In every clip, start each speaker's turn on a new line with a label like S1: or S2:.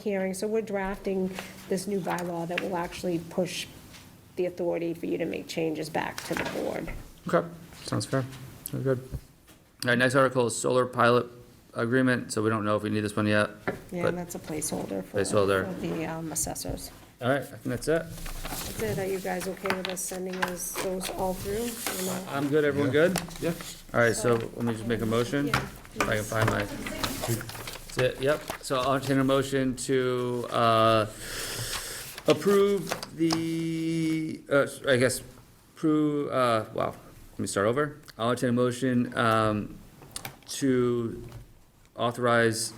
S1: hearing, so we're drafting this new bylaw that will actually push the authority for you to make changes back to the board.
S2: Okay, sounds fair. Sounds good. All right, next article is solar pilot agreement, so we don't know if we need this one yet.
S1: Yeah,
S2: but-
S1: and that's a placeholder for
S2: Placeholder.
S1: for the um, assessors.
S2: All right, I think that's it.
S1: That's it. Are you guys okay with us sending us those all through? Or not?
S2: I'm good, everyone good?
S3: Yeah.
S2: All right, so let me just make a motion,
S1: Yeah,
S2: if I can find my. That's it, Yep, so I'll entertain a motion to, uh, approve the, uh, I guess, approve, uh, wow, let me start over. I'll entertain a motion, um, to authorize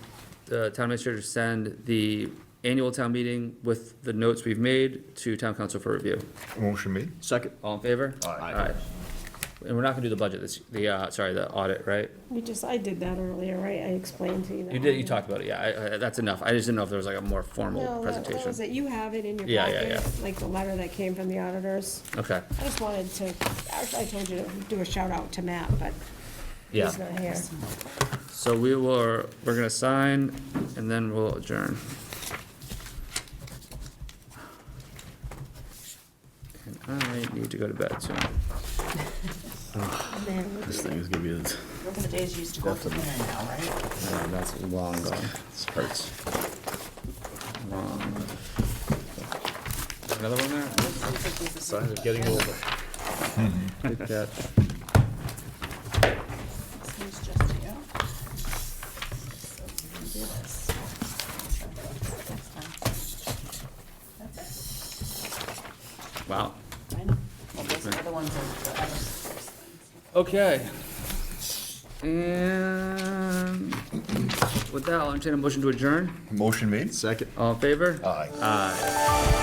S2: the town administrator to send the annual town meeting with the notes we've made to town council for review.
S3: Motion made. Second.
S2: All in favor?
S3: Aye.
S2: Aye. And we're not gonna do the budget this, the, uh, sorry, the audit, right?
S1: We just, I did that earlier, right? I explained to you. that
S2: You did, you talked about it, yeah, I, I, that's enough, I just didn't know if there was like a more formal
S1: No, that- that was
S2: presentation.
S1: it. You have it in your
S2: Yeah, yeah,
S1: packet, like the letter that came from the auditors.
S2: Okay,
S1: I just wanted to, actually, I told you to do a shout out to Matt, but
S2: yeah,
S1: he's not here.
S2: so we will, we're gonna sign, and then we'll adjourn. And I need to go to bed soon.
S1: Man,
S3: This thing is gonna be, it
S4: Those are the days you used to go for dinner now, right?
S2: Oh, That's long gone.
S3: hurts.
S2: Long. Another one there?
S3: Signs of getting older.
S2: Good catch.
S4: This one's just you. So we can do this. That's fine. That's
S2: Wow.
S4: it. I know. Well, those other ones are the other six things.
S2: Okay. And with that, I'll entertain a motion to adjourn.
S3: Motion made. Second.
S2: All in favor?
S3: Aye.
S2: Aye.